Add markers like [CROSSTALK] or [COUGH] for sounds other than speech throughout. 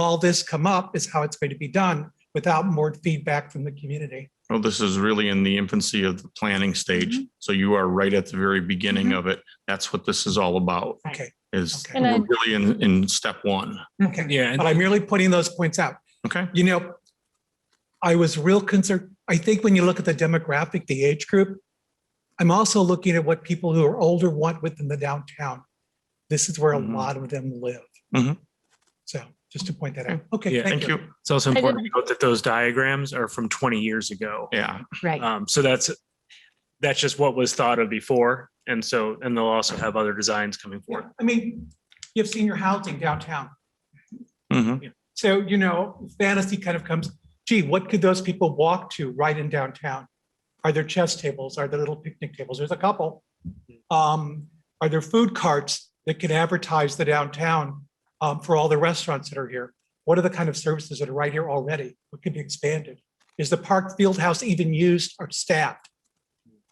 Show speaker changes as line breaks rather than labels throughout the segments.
all this come up is how it's going to be done without more feedback from the community.
Well, this is really in the infancy of the planning stage. So you are right at the very beginning of it. That's what this is all about
Okay,
is
Okay.
And I-
we're really in, in step one.
okay.
Yeah,
But I'm merely putting those points out.
Okay.
You know, I was real concerned. I think when you look at the demographic, the age group, I'm also looking at what people who are older want within the downtown. This is where a
Mhm.
lot of them live.
Mhm.
So just to point that out.
Yeah,
Okay,
Thank you.
it's also
I didn't-
important to note that those diagrams are from 20 years ago.
Yeah.
Right.
Um, so that's, that's just what was thought of before. And so, and they'll also have other designs coming
Yeah,
forward.
I mean, you have senior housing downtown.
Mhm.
So, you know, fantasy kind of comes, gee, what could those people walk to right in downtown? Are there chess tables? Are there little picnic tables? There's a couple. Um, are there food carts that can advertise the downtown um, for all the restaurants that are here? What are the kind of services that are right here already? What could be expanded? Is the park field house even used or staffed?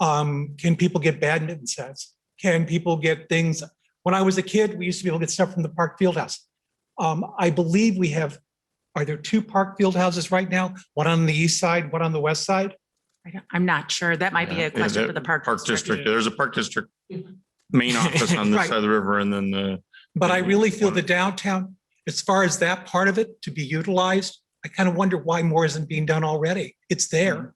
Um, can people get badminton sets? Can people get things? When I was a kid, we used to be able to get stuff from the park field house. Um, I believe we have, are there two park field houses right now? One on the east side, one on the west side?
I don't- I'm not sure. That might be
Yeah,
a question
that
for the park.
Park District. There's a Park District main office on this
Right.
side of the river and then the,
But I
Mhm.
really feel
One.
the downtown, as far as that part of it to be utilized, I kind of wonder why more isn't being done already. It's there.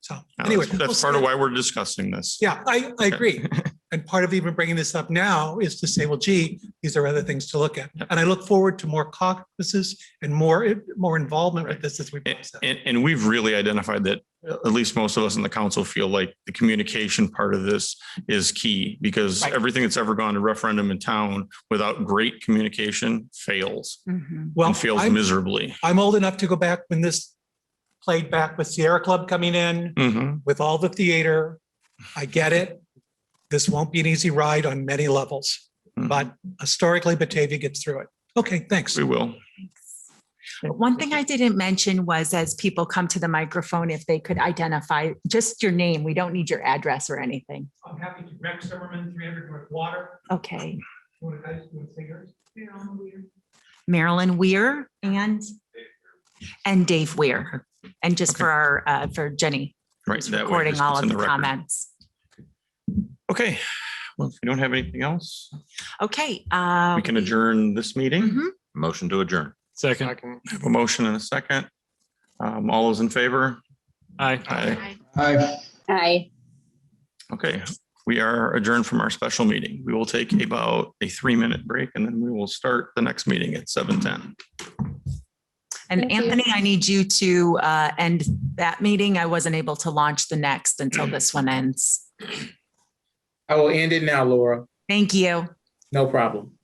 So
uh,
anyway.
Hmm. that's- that's
we'll
part of
see.
why we're discussing this.
Yeah, I, I
[LAUGHS]
agree. And part of even bringing this up now is to say, well, gee, these are other things to look at.
Yep.
And I look forward to more caucuses and more, more involvement with
Right.
this as we
And,
process.
and, and we've really identified that, uh, at least most of us in the council feel like the communication part of this is key because
Right.
everything that's ever gone to referendum in town without great communication fails
Mhm.
Well,
and fails
I'm-
miserably.
I'm old enough to go back when this played back with Sierra Club coming in
Mhm.
with all the theater. I get it. This won't be an easy ride on many levels,
Mhm.
but historically Batavia gets through it. Okay, thanks.
We will.
One thing I didn't mention was as people come to the microphone, if they could identify just your name, we don't need your address or anything.
I'm happy to, Rex Zimmerman, 300 North Water.
Okay.
You want to, you want to say yours?
Marilyn Weir and, and Dave Weir. And just for our, uh, for Jenny,
Right.
who's
that way,
recording
just
all
it's
of
in
the
record.
comments.
Okay. Well, if you don't have anything else,
Okay. uh,
we can adjourn this meeting.
mhm.
Motion to adjourn.
Second.
I have a motion and a second. Um, all those in favor?
Aye.
Aye.
Okay, we are adjourned from our special meeting. We will take about a three-minute break and then we will start the next meeting at seven ten.
And
Thank you.
Anthony, I need you to, uh, end that meeting. I wasn't able to launch the next
Mm.
until this one ends.
I will end it now, Laura.
Thank you.
No problem.